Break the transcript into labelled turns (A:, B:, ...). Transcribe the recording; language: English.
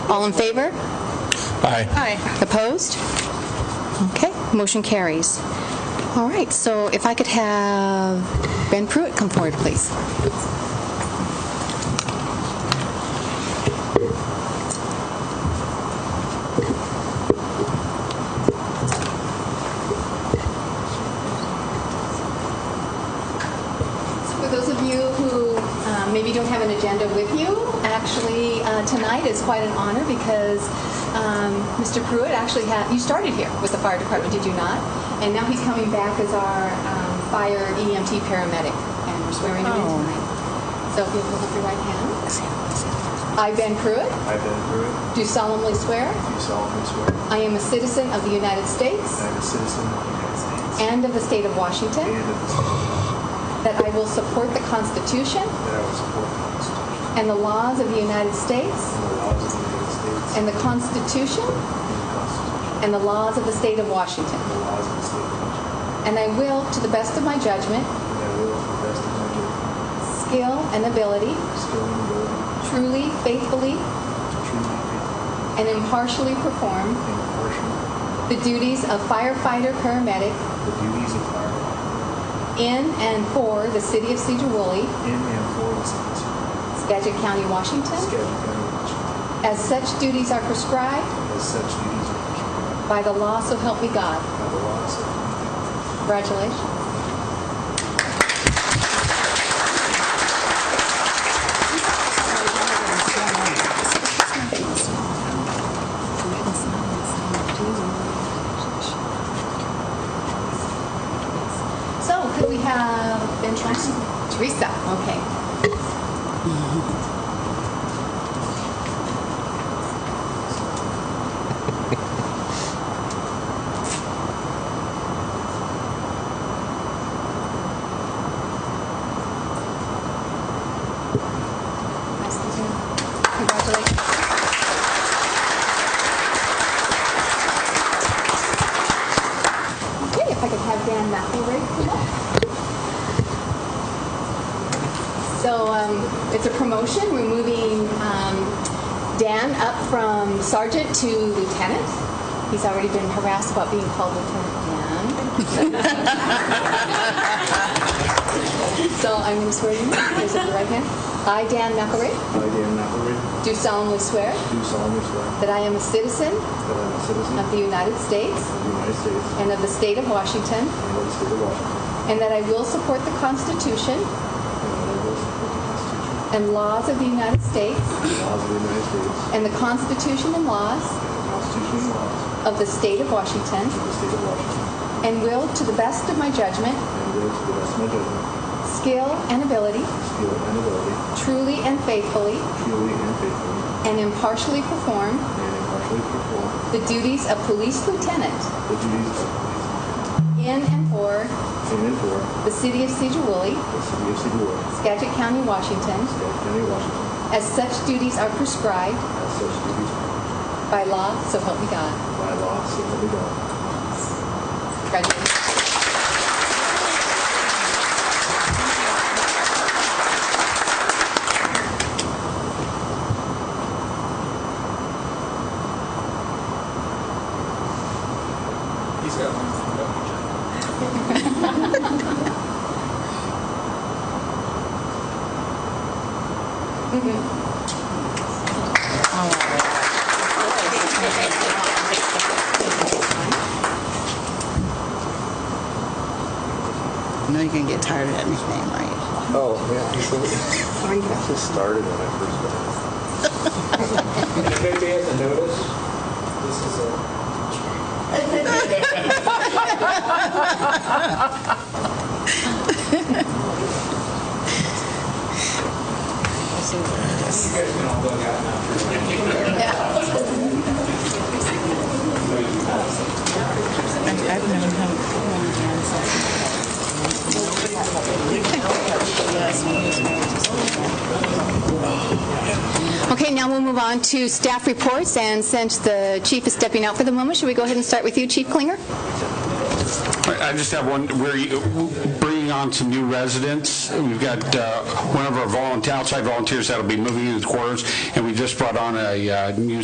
A: All in favor?
B: Aye.
C: Aye.
A: Opposed? Okay, motion carries. All right, so if I could have Ben Pruitt come forward, please. For those of you who uh, maybe don't have an agenda with you, actually, uh, tonight is quite an honor because um, Mr. Pruitt actually had, you started here with the fire department, did you not? And now he's coming back as our um, fire EMT paramedic, and we're swearing him in tonight. So if you'll hold up your right hand. I, Ben Pruitt,
D: I, Ben Pruitt,
A: do solemnly swear
D: do solemnly swear that
A: I am a citizen of the United States
D: I am a citizen of the United States
A: and of the state of Washington,
D: and of the state of Washington,
A: that I will support the Constitution
D: that I will support the Constitution
A: and the laws of the United States
D: and the laws of the United States
A: And the Constitution
D: and the Constitution
A: and the laws of the State of Washington.
D: and the laws of the state of Washington,
A: And I will, to the best of my judgment,
D: and that I will, to the best of my judgment,
A: skill, and ability,
D: skill, and ability,
A: truly, faithfully,
D: truly, faithfully,
A: and impartially perform
D: and impartially,
A: the duties of firefighter paramedic
D: the duties of firefighter
A: in and for the City of Cedar Woolley,
D: in and for the city of Schenectady,
A: Skagit County, Washington,
D: County, Washington,
A: as such duties are prescribed
D: as such duties are prescribed
A: by the law, so help me God.
D: by the laws of the United States.
A: Congratulations. So could we have Ben Teresa? Teresa, okay. Nice to meet you. Congratulations. Okay, if I could have Dan McElroy come up. So um, it's a promotion. We're moving um, Dan up from sergeant to lieutenant. He's already been harassed about being called Lieutenant Dan. So I'm going to swear you in. Raise up your right hand. I, Dan McElroy,
D: I, Dan McElroy,
A: do solemnly swear
D: do solemnly swear
A: that I am a citizen
D: that I am a citizen
A: of the United States
D: of the United States
A: and of the state of Washington,
D: and of the state of Washington,
A: and that I will support the Constitution
D: And that I will support the
A: and
D: Constitution
A: laws of the United States
D: and laws of the United States
A: and the Constitution and laws
D: and the Constitution and laws
A: of the state of Washington,
D: of the state of Washington,
A: and will, to the best of my judgment,
D: and will to the best of my judgment,
A: skill, and ability,
D: skill, and ability,
A: truly and faithfully,
D: truly and faithfully,
A: and impartially perform
D: and impartially perform
A: the duties of police lieutenant
D: the duties of police lieutenant
A: in and for
D: in and for
A: the city of Cedar Woolley,
D: the city of Cedarwood,
A: Skagit County, Washington,
D: Scott County, Washington,
A: as such duties are prescribed
D: as such duties
A: by law, so help me God.
D: by law, so help me God.
A: Congratulations.
E: He's got one from Belgium.
B: I know you're going to get tired of that nickname, right?
D: Oh, yeah, absolutely. I just started when I first started.
E: Maybe at the notice, this is a, you guys can all bug out now.
B: I've I've known him for a long time.
A: Okay, now we'll move on to staff reports, and since the chief is stepping out for the moment, should we go ahead and start with you, Chief Klinger?
F: I I just have one, we're bringing on some new residents. We've got uh, one of our volunteer, outside volunteers that'll be moving into quarters, and we just brought on a uh, new